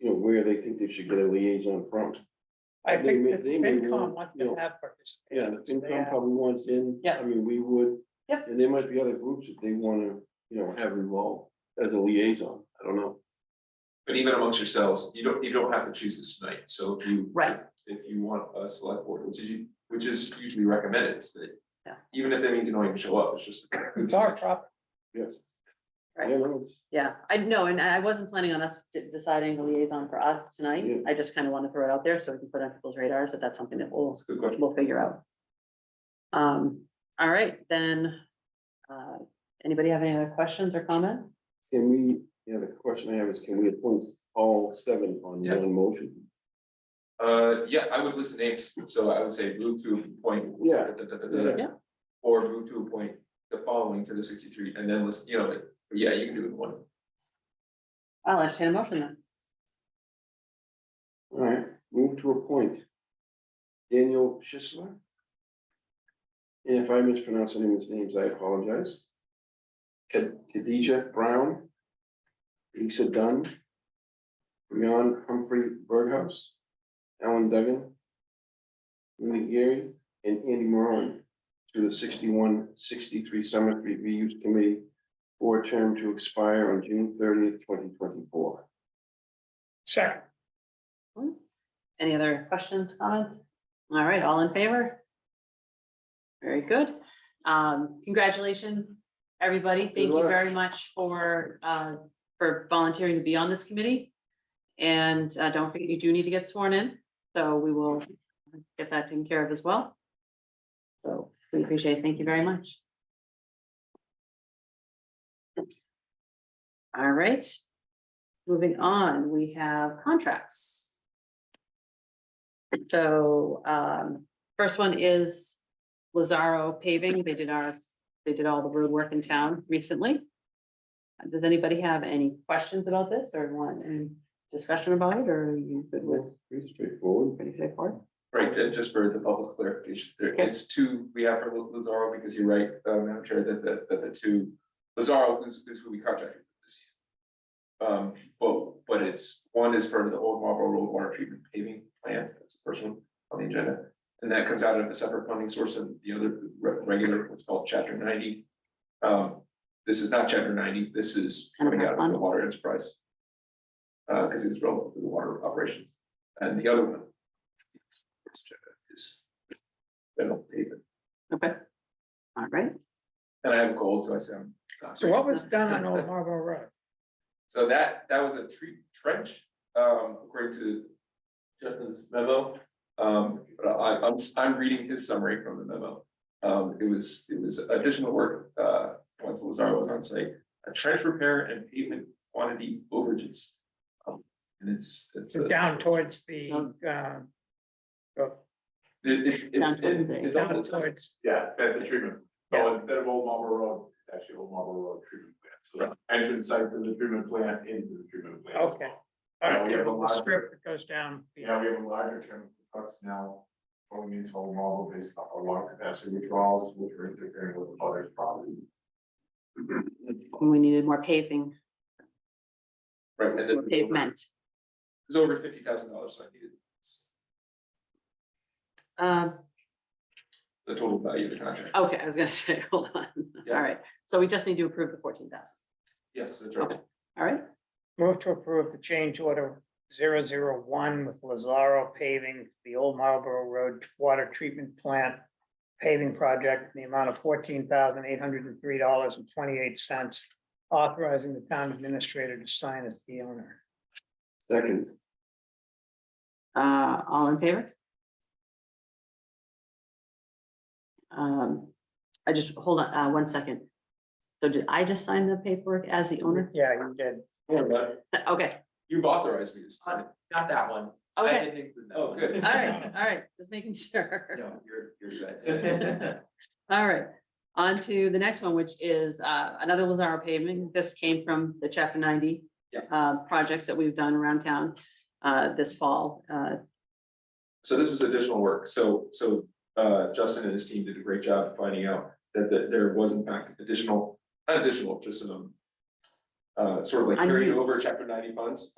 where they think they should get a liaison from. I They think may- the they may FinCom want, wants you know, to have Yeah, participation. the so they FinCom have- probably wants in. Yeah. I mean, we would. Yep. And there might be other groups that they wanna, you know, have involved as a liaison. I don't know. But even amongst yourselves, you don't, you don't have to choose this tonight, so if you. Right. If you want a select board, which is, u- which is usually recommended, it's that. Yeah. Even if that means you don't even show up, it's just. It's our topic. Yes. Right. Yeah, no, it's- Yeah, I know, and I wasn't planning on us de- deciding the liaison for us tonight. Yeah. I just kind of want to throw it out there so we can put it on people's radars that that's something that we'll, It's a good question. we'll figure out. Um, all right, then. uh, Anybody have any other questions or comment? Can we, yeah, the question I have is, can we appoint all seven on Yeah. one motion? Uh, yeah, I would list names, so I would say move to appoint. Yeah. da, da, da, da, da, Yeah. Or move to appoint the following to the sixty-three and then list, you know, like, yeah, you can do it in one. I'll entertain a motion then. All right, move to appoint Daniel Schisler. And if I mispronounce any of his names, I apologize. Khad- Khadijah Brown. Lisa Dunn. Leon Humphrey Berghaus. Alan Duggan. Linda Gary and Andy Moran to the 61-63 Summer Street Reuse Committee for a term to expire on June thirtieth, twenty twenty-four. Second, Any other questions, comments? All right, all in favor? Very good. Um, congratulations, everybody. Thank you luck. very much for, uh, for volunteering to be on this committee. And, uh, don't forget, you do need to get sworn in, so we will get that taken care of as well. So we appreciate it. Thank you very much. All right, moving on, we have contracts. So um, first one is Lazaro paving. They did our, they did all the road work in town recently. Uh, Does anybody have any questions about this or want any discussion about it or are you good with Pretty straightforward. pretty straightforward? Right, then just for the public clarification, there, Okay. it's two, we have for Lu- Luzaro, because you're right, uh, Madam Chair, that, that, that the two, Luzaro is, is who we contracted with this season. Um, but, but it's, one is for the Old Marlboro Road Water Treatment Paving Plan, that's the first one on the agenda. And that comes out of a separate funding source and the other re- regular, what's called chapter ninety. Um, this is not chapter ninety, this is coming out of the water enterprise. Uh, because it's relevant to the water operations, and the other one is general pavement. Okay. All right. And I have a cold, so I sound. so what was done on Old Marlboro Road? So that, that was a tree trench, um, according to Justin's memo. Um, but I, I'm, I'm reading his summary from the memo. Um, it was, it was additional work, uh, once Lazaro was on site, a trench repair and pavement quantity overages. Um, And it's, it's. So a- down towards the, So- um, It, it's- Down towards it's, the- it's, down almost- towards, Yeah, that the treatment, Yeah. oh, instead of Old Marlboro Road, actually Old Marlboro Road treatment plant, so the entrance site to the treatment plant into the treatment plant. okay. All Yeah, right, we have a the lot- strip that goes down. Yeah, we have a larger chemical trucks now, going into Old Marlboro based off our lung capacity withdrawals, which are interfering with others' property. And we needed more paving, right, and more then. pavement. It's over fifty thousand dollars, so I needed Um, the total value of the contract. okay, I was gonna say, hold on. Yeah. All right. So we just need to approve the fourteen thousand. Yes, that's right. All right. Move to approve the change order 001 with Lazaro paving the Old Marlboro Road Water Treatment Plant paving project in the amount of fourteen thousand eight hundred and three dollars and twenty-eight cents, authorizing the town administrator to sign as the owner. Second, Uh, all in favor? Um, I just, hold on, uh, one second. So did I just sign the paperwork as the owner? Yeah, you did. Don't worry about it. Okay, You've authorized me to sign it. Uh, Not that one. I okay, didn't include that. Oh, one. good. all right, all right, just making sure. No, you're, you're good. That's All right, on to the next one, which is uh, another Lazaro paving. This came from the chapter ninety. Yeah. Uh, projects that we've done around town uh, this fall. Uh, So this is additional work. So, so, uh, Justin and his team did a great job finding out that, that there was in fact additional, not additional, just some um, uh, sort of like carried Unused. over chapter ninety funds,